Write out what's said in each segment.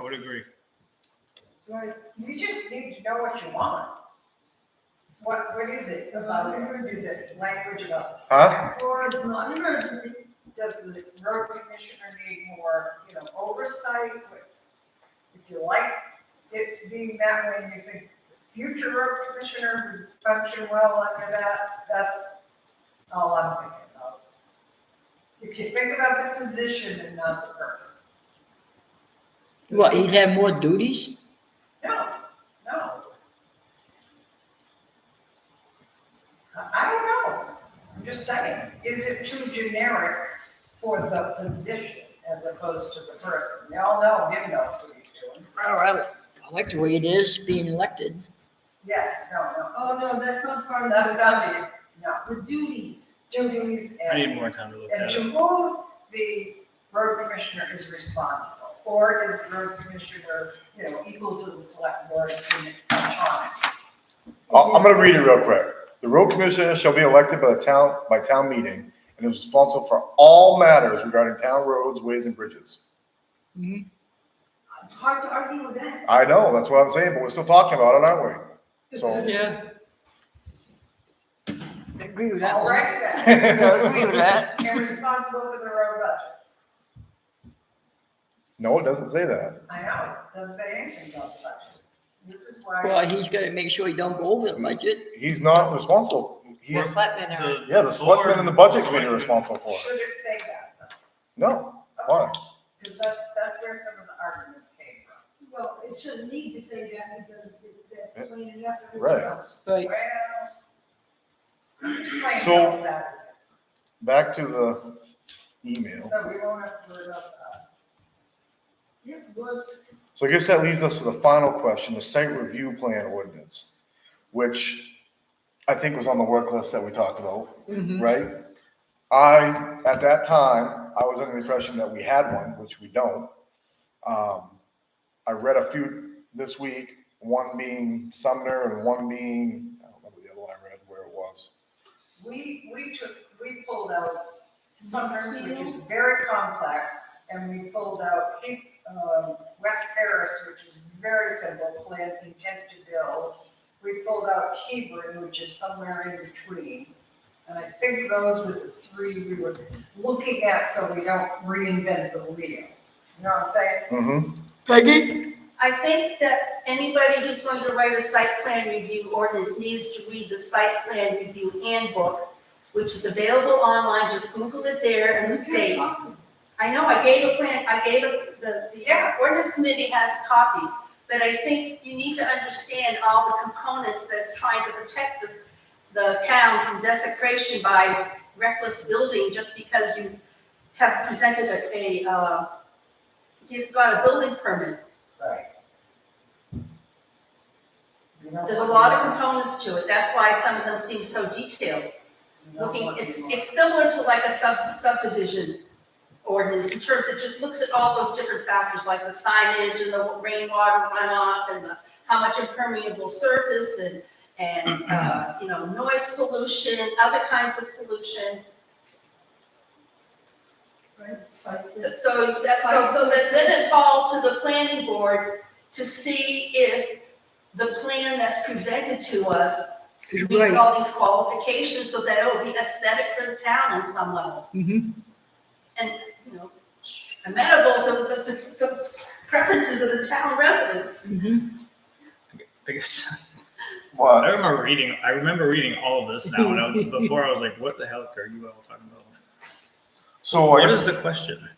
would agree. Well, you just need to know what you want. What, what is it about it? Is it language about the Huh? select board? It's not an emergency. Does the road commissioner need more, you know, oversight? If you like it being that way, and you think future road commissioner would function well under that, that's all I'm thinking about. If you think about the position and not the person. What, he'd have more duties? No, no. I- I don't know. I'm just saying, is it too generic for the position as opposed to the person? They all know, him knows what he's doing. Oh, I, I like the way it is being elected. Yes, no, Oh, no, that's not part no. of. That's not the, no, The duties. duties I need and, more time to look and at to it. whom the road commissioner is responsible. Or is the road commissioner, you know, equal to the select board in autonomy? I'll- Uh, Oh, I'm gonna read it real quick. The road commissioner shall be elected by the town, by town meeting and is responsible for all matters regarding town roads, ways and bridges. It's hard to argue with that. I know, that's what I'm saying, but we're still talking about it, aren't we? So. Yeah. Agree with that All one. right then. Yeah, agree with that. and responsible for the road budget. No, it doesn't say that. I know, doesn't say anything about the budget. This is why, Well, he's gotta make sure he don't go over the budget. He's not responsible. The He's, selectmen are, yeah, the selectmen and the budget committee are Board- responsible for it. should it say that? No, why? Because that's, that's where some of the argument came from. Well, it shouldn't need to say that because it- that's plain enough. for everyone Right. else. Right, Well, I'm just playing So- devil's advocate, Back to the email. so we won't have to worry about that. Yeah, well, So I guess that leads us to the final question, the site review plan ordinance, which I think was on the work list that we talked about, mhm. right? I, at that time, I was under the impression that we had one, which we don't. Um, I read a few this week, one being Sumner and one being, I don't remember the other one I read where it was. We, we took, we pulled out Summers, which is very complex, and we pulled out, um, West Paris, which is very simple, plan intent to build. We pulled out Hebron, which is somewhere in between. And I think those were the three we were looking at, so we don't reinvent the wheel. You know what I'm saying? Mm-hmm. Peggy? I think that anybody who's going to write a site plan review ordinance needs to read the site plan review handbook, which is available online, just Google it there in the state. I know, I gave a plan, I gave a, the, the Yeah. ordinance committee has a copy, but I think you need to understand all the components that's trying to protect the, the town from desecration by reckless building just because you have presented a, a, uh, you've got a building permit. Right. You know There's a what lot you of want. components to it, that's why some of them seem so detailed. You know Looking, what you it's, want. it's similar to like a sub subdivision ordinance in terms, it just looks at all those different factors, like the signage and the rainwater runoff and the, how much impermeable surface and, and, uh, you know, noise pollution, other kinds of pollution. Right, site. So- So, that's, so, so that- then it falls to the planning board to see if the plan that's presented to us He's meets right. all these qualifications so that it'll be aesthetic for the town in some level, Mhm. you know, amenable to the, the, the preferences of the town residents. Mhm. I guess, I What? remember reading, I remember reading all of this now, and I was, before I was like, what the hell are you all talking about? So I What is guess the question?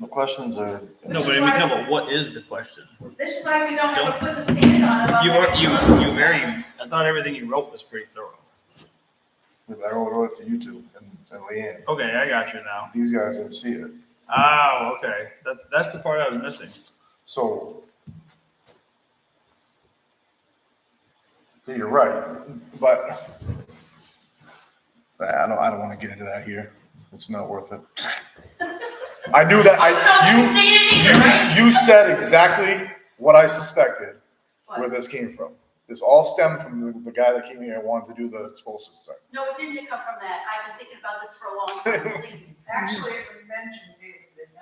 the questions are. No, but I mean, no, but what is the question? This is why we don't have a put to stand on about. You were, that. you, you very, I thought everything you wrote was pretty thorough. I wrote it to YouTube and, and Leanne. Okay, I got you now. These guys didn't see it. Oh, okay, that, that's the part I was missing. So. Yeah, You're right, but I don't, I don't want to get into that here. It's not worth it. I knew that, I don't know if I, it's needed you, either, right? you, you said exactly what I suspected, where What? this came from. This all stemmed from the, the guy that came here and wanted to do the explosive thing. No, it didn't come from that, I've been thinking about this for a long time, believe me. Actually, it was mentioned